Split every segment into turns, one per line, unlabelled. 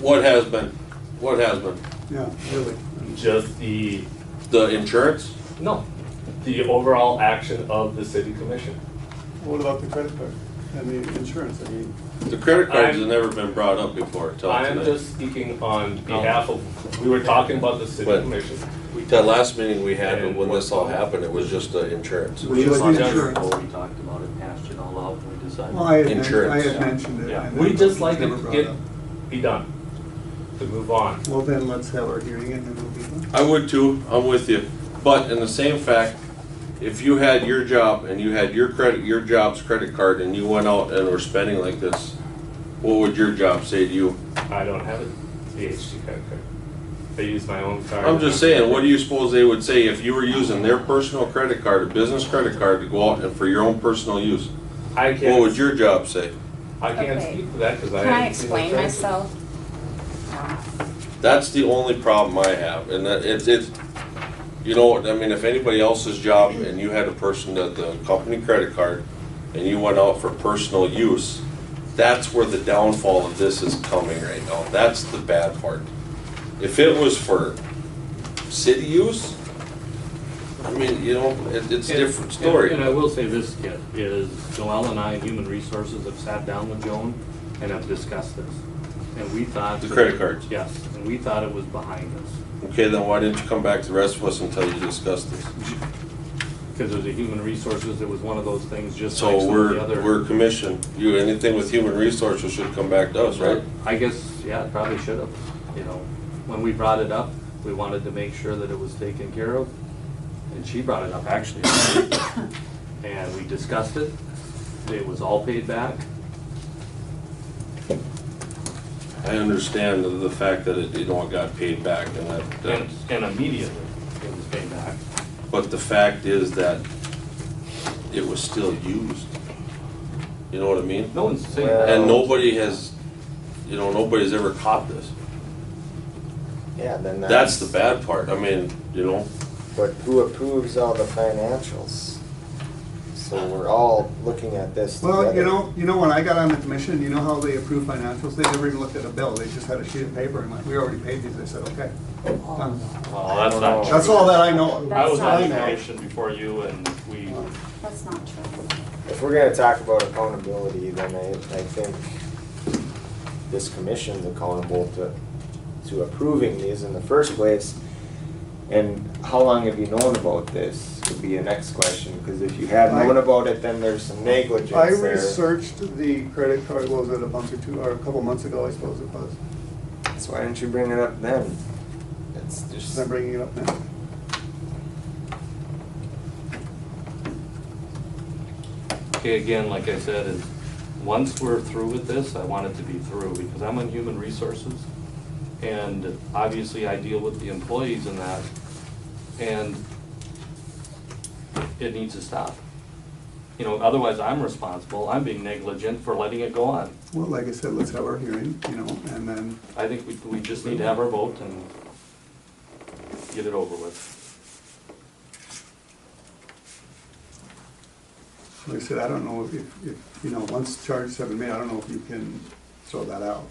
What has been? What has been?
Yeah, really.
just the,
The insurance?
no, the overall action of the city commission.
What about the credit card and the insurance? I mean,
The credit cards
I'm-
have never been brought up before until
I am
tonight.
just speaking on behalf of, we were talking about the city
But-
commission.
That last meeting we had,
And
when
what-
this all happened, it was just the insurance.
We just
Well,
like
that's
insurance.
What we talked about and hashed it all out and we decided.
Well, I had, men- I
Insurance.
had mentioned it.
Yeah.
and
We
then
just like
never
it to
brought up.
get, be done, to move on.
Well, then let's have our hearing and then we'll be done.
I would too, I'm with you. But in the same fact, if you had your job and you had your credit, your job's credit card and you went out and were spending like this, what would your job say to you?
I don't have a VHD credit card. I use my own card.
I'm just saying, what do you suppose they would say if you were using their personal credit card, a business credit card to go out and for your own personal use?
I
What would
can't,
your job say?
I can't
Okay.
speak to that because I.
Can I
haven't seen the
explain
charges.
myself?
That's the only problem I have, and that it's, it's, you know, I mean, if anybody else's job and you had a person that the company credit card and you went out for personal use, that's where the downfall of this is coming right now. That's the bad part. If it was for city use, I mean, you know, it, it's a
And-
different story.
And and I will say this, Kit, is Joelle and I, and Human Resources, have sat down with Joan and have discussed this. And we thought.
The
that-
credit cards.
Yes, and we thought it was behind us,
Okay, then why didn't you come back to the rest of us until you discussed this?
because as a Human Resources, it was one of those things, just like
So
some of the
we're,
other.
we're commissioned, you, anything with human resources should come back to us, right?
I guess, yeah, it probably should have, you know, when we brought it up, we wanted to make sure that it was taken care of, and she brought it up, actually. And we discussed it, it was all paid back,
I understand the, the fact that it, you know, it got paid back and that, that,
and, and immediately it was paid back.
but the fact is that it was still used. You know what I mean?
No one's saying that.
And nobody has, you know, nobody's ever caught this.
Yeah, then
That's
that's,
the bad part. I mean, you know,
but who approves all the financials? So we're all looking at this together.
Well, you know, you know, when I got on the commission, you know how they approve financials? They never even looked at a bill. They just had a sheet of paper and went, we already paid these. I said, okay. done."
Oh,
Well, that's not
Oh.
true.
That's all that I know. of.
I was on the
That's not true.
commission before you and we,
That's not true.
If we're gonna talk about accountability, then I, I think this commission's accountable to, to approving these in the first place. And how long have you known about this would be the next question, because if you have known
I-
about it, then there's some negligence
I
there.
researched the credit card, what was it, a month or two, or a couple months ago, I suppose it was.
So why didn't you bring it up then? It's just.
I'm bringing it up now.
okay, again, like I said, is, once we're through with this, I want it to be through, because I'm on human resources. And obviously I deal with the employees and that, and it needs to stop. You know, otherwise I'm responsible, I'm being negligent for letting it go on.
Well, like I said, let's have our hearing, you know, and then
I think we, we just need to have our vote and get it over with.
Like I said, I don't know if, if, you know, once charges have been made, I don't know if you can throw that out,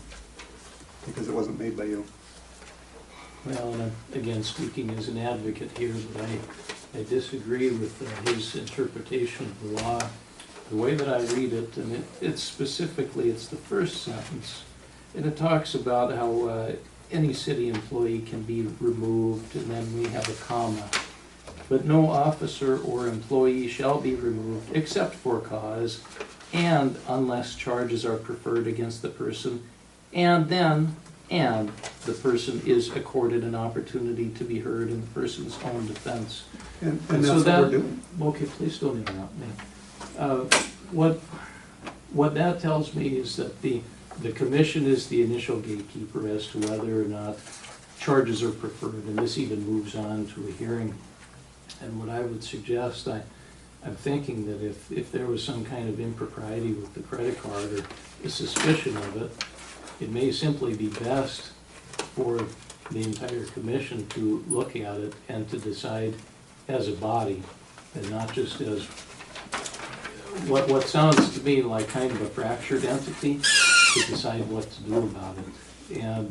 because it wasn't made by you.
Well, and I- again, speaking as an advocate here, but I, I disagree with uh, his interpretation of the law. The way that I read it, and it, it's specifically, it's the first sentence, and it talks about how, uh, any city employee can be removed, and then we have a comma. But no officer or employee shall be removed except for cause, and unless charges are preferred against the person, and then, and the person is accorded an opportunity to be heard in the person's own defense.
And, and
And so
that's what we're
that-
doing.
Okay, please don't interrupt me. Uh, What, what that tells me is that the, the commission is the initial gatekeeper as to whether or not charges are preferred, and this even moves on to a hearing. And what I would suggest, I, I'm thinking that if, if there was some kind of impropriety with the credit card or a suspicion of it, it may simply be best for the entire commission to look at it and to decide as a body and not just as, what, what sounds to me like kind of a fractured entity to decide what to do about it. and